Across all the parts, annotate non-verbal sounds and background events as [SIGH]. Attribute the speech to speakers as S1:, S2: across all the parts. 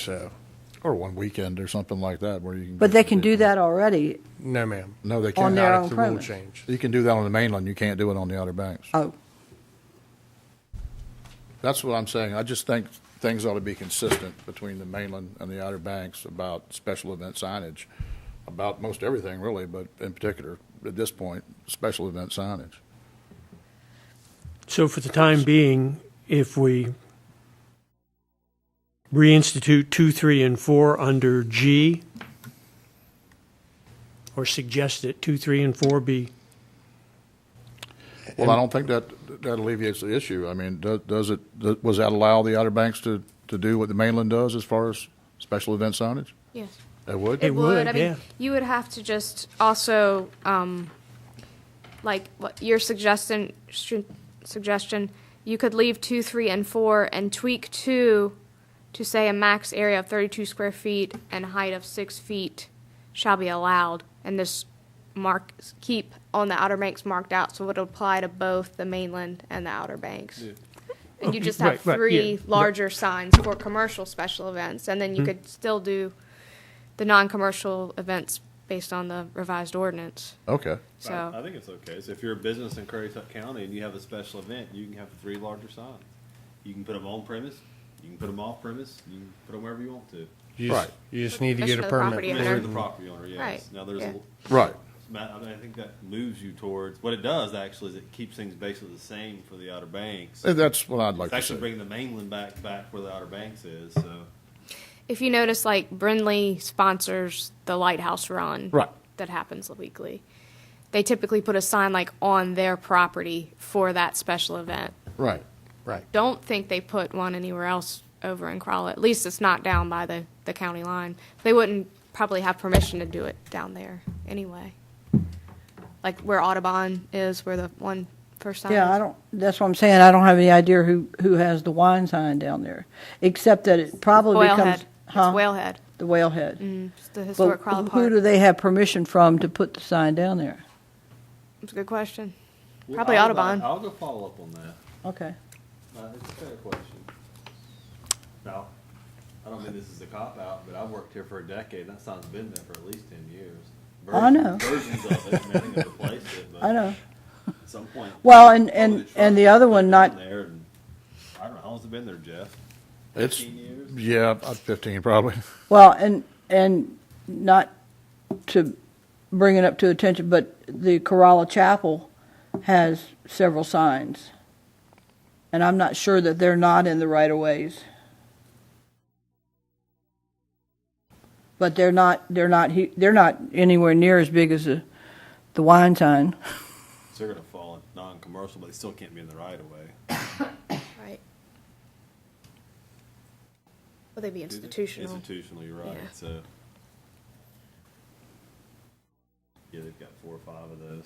S1: so, uh, or one weekend or something like that where you can.
S2: But
S1: go
S2: they
S1: to
S2: can do
S1: different-
S2: that already.
S3: No, ma'am.
S1: No, they
S2: on
S1: can't.
S2: their
S3: Not
S2: own
S3: if the rule
S2: premise.
S3: change.
S1: You can do that on the mainland, you can't do it on the Outer Banks.
S2: Oh,
S1: That's what I'm saying, I just think things ought to be consistent between the mainland and the Outer Banks about special event signage, about most everything really, but in particular, at this point, special event signage.
S4: So for the time being, if we reinstitute two, three, and four under G, or suggest that two, three, and four be,
S1: Well, I don't think that, that alleviates the issue, I mean, do- does it, does- was that allow the Outer Banks to, to do what the mainland does as far as special event signage?
S5: Yes.
S1: It would?
S4: It would,
S5: I mean,
S4: yeah.
S5: You would have to just also, um, like, what your suggestion, sh- suggestion, you could leave two, three, and four and tweak two to say a max area of thirty-two square feet and height of six feet shall be allowed, and this mark, keep on the Outer Banks marked out, so it'll apply to both the mainland and the Outer Banks. And you
S4: Okay,
S5: just have
S4: right, right, yeah, Mm-hmm.
S5: three
S4: right.
S5: larger signs for commercial special events, and then you could still do the non-commercial events based on the revised ordinance.
S1: Okay,
S5: So,
S6: I, I think it's okay. So if you're a business in Currituck County and you have a special event, you can have three larger signs. You can put them on premise, you can put them off premise, you can put them wherever you want to.
S3: You just,
S1: Right.
S3: you just need to
S5: That's
S3: get a
S5: for the
S3: permit.
S5: property
S3: for
S6: If
S5: owner.
S6: you're
S3: it.
S6: the property owner, yes.
S5: Right,
S6: Now there's
S5: yeah.
S6: a,
S1: right,
S6: Matt, I, mean, I think that moves you towards what it does actually is it keeps things basically the same for the Outer Banks.
S1: And Uh, that's what I'd like
S6: it's
S1: to
S6: actually
S1: see.
S6: bringing the mainland back back where the Outer Banks is. So
S5: if you notice, like Brindley sponsors the Lighthouse Run
S1: Right.
S5: that happens weekly. They typically put a sign like on their property for that special event.
S1: Right,
S3: Right.
S5: Don't think they put one anywhere else over in Crawley. At least it's not down by the, the county line. They wouldn't probably have permission to do it down there anyway. Like where Audubon is, where the one first sign
S2: yeah,
S5: is.
S2: I don't, that's what I'm saying. I don't have any idea who, who has the wine sign down there, except that it probably
S5: Whalehead.
S2: becomes.
S5: It's
S2: Huh?
S5: Whalehead. Mm,
S2: The whalehead.
S5: It's the
S2: But
S5: historic Crawley
S2: who
S5: Park.
S2: do they have permission from to put the sign down there?
S5: It's a good question.
S6: Well,
S5: Probably
S6: I'll-
S5: Audubon.
S6: I'll go follow up on that.
S2: Okay.
S6: Uh, it's a fair question. Now, I don't mean this is a cop out, but I've worked here for a decade, and that sign's been there for at least ten years.
S2: I know.
S6: Versions of it, and I think I've replaced it, but
S2: I know.
S6: at some point.
S2: Well, and-
S6: probably
S2: and-
S6: truck
S2: and the other
S6: put
S2: one
S6: it
S2: not-
S6: on There, and, I don't know, how long's it been there, Jeff?
S1: it's,
S6: Fifteen years?
S1: yeah, about fifteen probably. [LAUGHS]
S2: Well, and, and not to bring it up to attention, but the Corolla Chapel has several signs. And I'm not sure that they're not in the right of ways. But they're not, they're not, hu- they're not anywhere near as big as the, the wine sign.
S6: So they're gonna fall in non-commercial, but they still can't be in the right of way.
S5: Right. Will they be institutional?
S6: Institutional, you're right, uh,
S5: Yeah.
S6: so. Yeah, they've got four or five of those.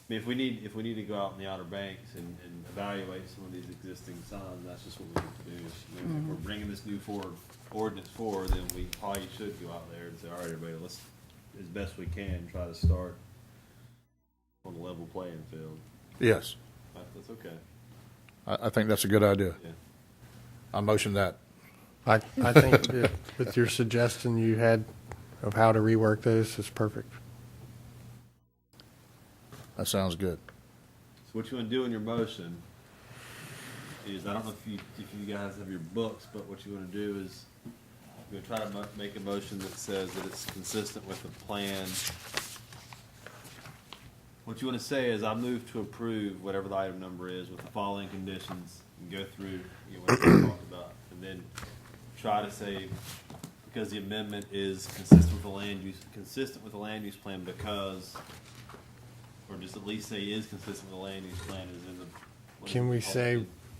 S6: I mean, if we need, if we need to go out in the Outer Banks and, and evaluate some of these existing signs, that's just what we need to do. I
S5: Mm-hmm.
S6: mean, If we're bringing this new forward, ordinance forward, then we probably should go out there and say, all right, everybody, let's, as best we can, try to start on a level playing field.
S1: Yes,
S6: That- That's okay,
S1: I, I think that's a good idea.
S6: yeah.
S1: I motion that.
S3: I, I think that with your suggestion you had of how to rework those is perfect.
S1: That sounds good.
S6: So what you want to do in your motion is, I don't know if you, if you guys have your books, but what you want to do is, you're going to try to mo- make a motion that says that it's consistent with the plan. What you want to say is, I move to approve whatever the item number is with the following conditions, and go through, you know, what we talked about, and then try to say, because the amendment is consistent with the land use, consistent with the land use plan because or just at least say is consistent with the land use plan is in the. what is
S3: Can
S6: it
S3: we
S6: called?
S3: say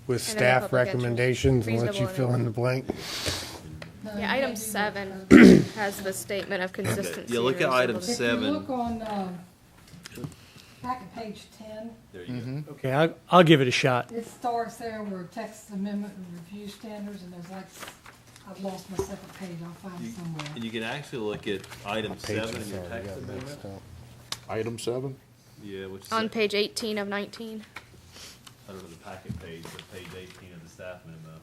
S3: with
S5: And then
S3: staff
S5: public interest.
S3: recommendations and let
S5: Reasonable
S3: you fill in the blank?
S5: Yeah, item
S6: [COUGHS]
S5: seven has the statement of consistency.
S6: Yeah, look at item
S5: reasonableness.
S6: seven.
S7: If you look on, um, back at page ten,
S6: There you go.
S4: okay, I'll, I'll give it a shot.
S7: it starts there where text amendment and review standards, and there's like, I've lost my second page, I'll find it
S6: You-
S7: somewhere.
S6: And you can actually look at item seven in your text amendment.
S1: Item seven?
S6: Yeah, which is,
S5: On
S6: I
S5: page eighteen of nineteen.
S6: don't know the packet page, but page eighteen of the staff memo.